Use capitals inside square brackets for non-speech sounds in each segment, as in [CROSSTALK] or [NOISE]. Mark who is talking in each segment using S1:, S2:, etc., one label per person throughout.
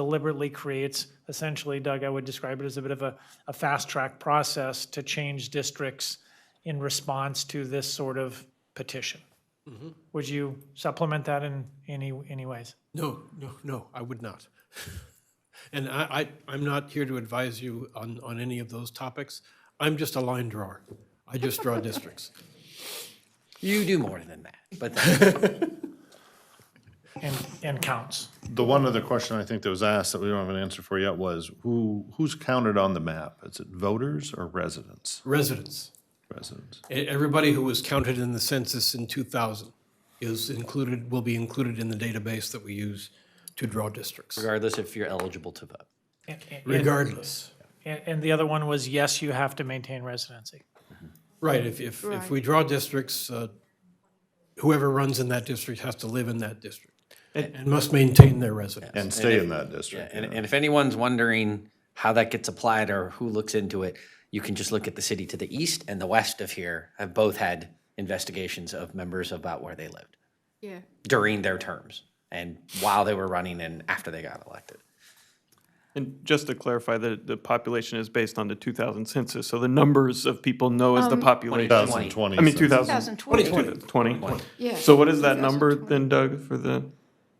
S1: deliberately creates, essentially, Doug, I would describe it as a bit of a, a fast-track process to change districts in response to this sort of petition. Would you supplement that in any, any ways?
S2: No, no, no, I would not. And I, I, I'm not here to advise you on, on any of those topics. I'm just a line drawer. I just draw districts.
S3: You do more than that, but
S1: And, and counts.
S4: The one other question I think that was asked that we don't have an answer for yet was who, who's counted on the map? Is it voters or residents?
S2: Residents,
S4: Residents.
S2: E- everybody who was counted in the census in 2000 is included, will be included in the database that we use to draw districts,
S3: regardless if you're eligible to vote.
S1: And- and-
S2: regardless.
S1: And, and the other one was, yes, you have to maintain residency.
S2: Right, if, if, if we draw districts, uh, whoever runs in that district has to live in that district and must maintain their residence.
S4: And stay in that district.
S3: And, and if anyone's wondering how that gets applied or who looks into it, you can just look at the city to the east and the west of here have both had investigations of members about where they lived
S5: Yeah,
S3: during their terms and while they were running and after they got elected.
S6: And just to clarify, the, the population is based on the 2000 census, so the numbers of people know as
S5: Um,
S6: the population.
S4: 2020.
S6: I mean, 2000.
S5: 2020.
S6: 2020.
S5: yeah.
S6: So what is that number then, Doug, for the,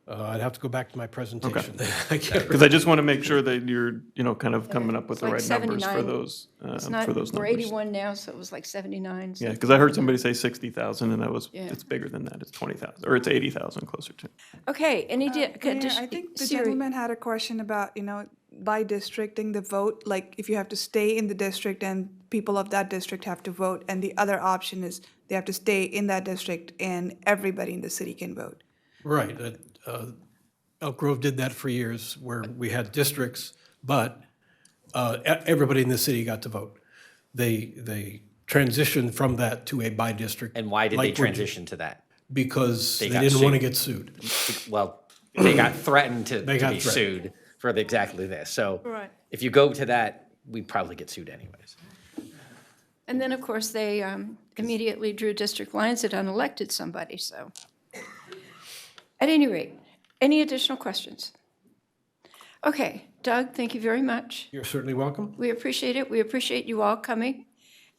S2: Uh, I'd have to go back to my presentation. [LAUGHS] I can't
S6: because I just want to make sure that you're, you know, kind of coming up with the
S5: like
S6: right numbers for
S5: 79.
S6: those, uh,
S5: It's not,
S6: for those
S5: we're
S6: numbers.
S5: 81 now, so it was like 79. so-
S6: Yeah, because I heard somebody say 60,000 and that was,
S5: Yeah.
S6: it's bigger than that, it's 20,000, or it's 80,000 closer to.
S5: Okay, any, di- uh,
S7: Mayor,
S5: addition-
S7: I think the
S5: Siri,
S7: gentleman had a question about, you know, by districting the vote, like if you have to stay in the district and people of that district have to vote, and the other option is they have to stay in that district and everybody in the city can vote.
S2: Right. uh, uh, Elk Grove did that for years, where we had districts, but uh, e- everybody in the city got to vote. They, they transitioned from that to a by-district.
S3: And why did
S2: like
S3: they
S2: we're-
S3: transition to that?
S2: Because they
S3: got
S2: didn't want to
S3: sued.
S2: get sued.
S3: Well, they got
S2: [CLEARS THROAT]
S3: threatened to, to
S2: got
S3: be
S2: threatened.
S3: sued for the- exactly this. So
S5: Right.
S3: if you go to that, we'd probably get sued anyways.
S5: and then, of course, they um, immediately drew district lines that unelected somebody, so. At any rate, any additional questions? Okay, Doug, thank you very much.
S2: You're certainly welcome.
S5: We appreciate it, we appreciate you all coming,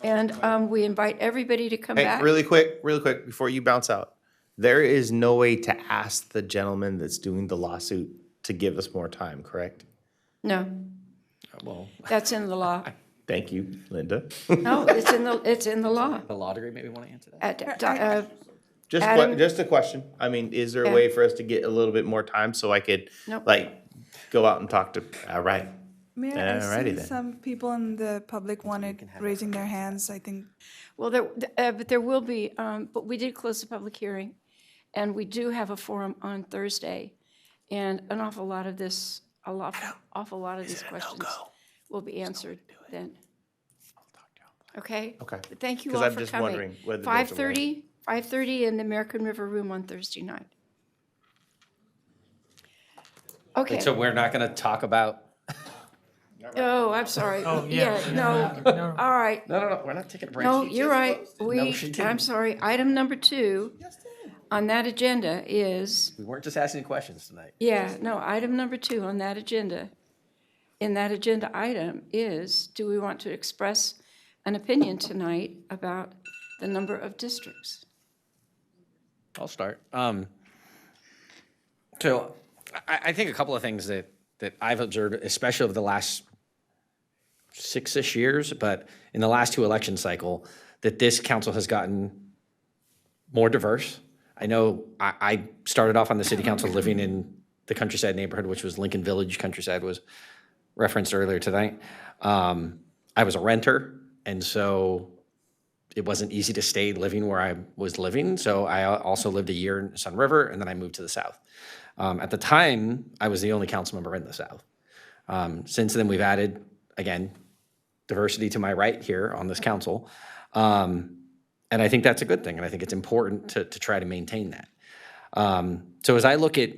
S5: and um, we invite everybody to come
S8: Hey,
S5: back.
S8: really quick, really quick, before you bounce out. There is no way to ask the gentleman that's doing the lawsuit to give us more time, correct?
S5: No,
S6: Oh,
S3: Well,
S5: that's in the law.
S6: [LAUGHS]
S8: Thank you, Linda. [LAUGHS]
S5: No, it's in the, it's in the law.
S3: the law degree maybe want to answer that?
S5: At- uh,
S8: Just, que-
S5: Adam?
S8: just a question. I mean, is there a
S5: Yeah.
S8: way for us to get a little bit more time so I could,
S5: Nope.
S8: like, go out and talk to, all right?
S7: Mayor, I
S8: Alrighty
S7: see
S8: then.
S7: some people in the public wanted, raising their hands, I think.
S5: Well, there, th- uh, but there will be, um, but we did close the public hearing, and we do have a forum on Thursday, and an awful lot of this, a lot, awful lot of these questions will be answered then. Okay?
S8: Okay.
S5: But Thank you
S8: 'Cause
S5: all
S8: I'm
S5: for
S8: just
S5: coming.
S8: wondering whether there's a way.
S5: Five thirty, five thirty in the American River Room on Thursday night. Okay,
S3: So we're not going to talk about.
S5: oh, I'm sorry.
S1: yeah,
S5: Yeah, [LAUGHS] no, all right,
S3: No, no, no. We're not taking a break.
S5: No,
S3: She
S5: you're
S3: just
S5: right.
S3: posted. No,
S5: We,
S3: she didn't.
S5: I'm sorry, item number two on that agenda is,
S3: We weren't just asking questions tonight.
S5: yeah, no, item number two on that agenda, in that agenda item is, do we want to express an opinion tonight about the number of districts?
S3: I'll start. Um, so I, I think a couple of things that, that I've observed, especially over the last six-ish years, but in the last two election cycle, that this council has gotten more diverse. I know I, I started off on the city council living in the countryside neighborhood, which was Lincoln Village. Countryside was referenced earlier tonight. Um, I was a renter, and so it wasn't easy to stay living where I was living. So I al- also lived a year in Sun River and then I moved to the South. Um, at the time, I was the only council member in the South. Um, since then, we've added, again, diversity to my right here on this council. Um, and I think that's a good thing. And I think it's important to, to try to maintain that. Um, so as I look at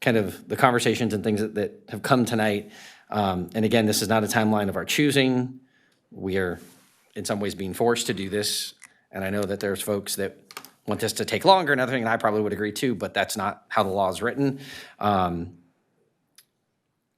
S3: kind of the conversations and things that, that have come tonight, um, and again, this is not a timeline of our choosing we are in some ways being forced to do this. And I know that there's folks that want this to take longer and other thing, and I probably would agree too, but that's not how the law is written. Um,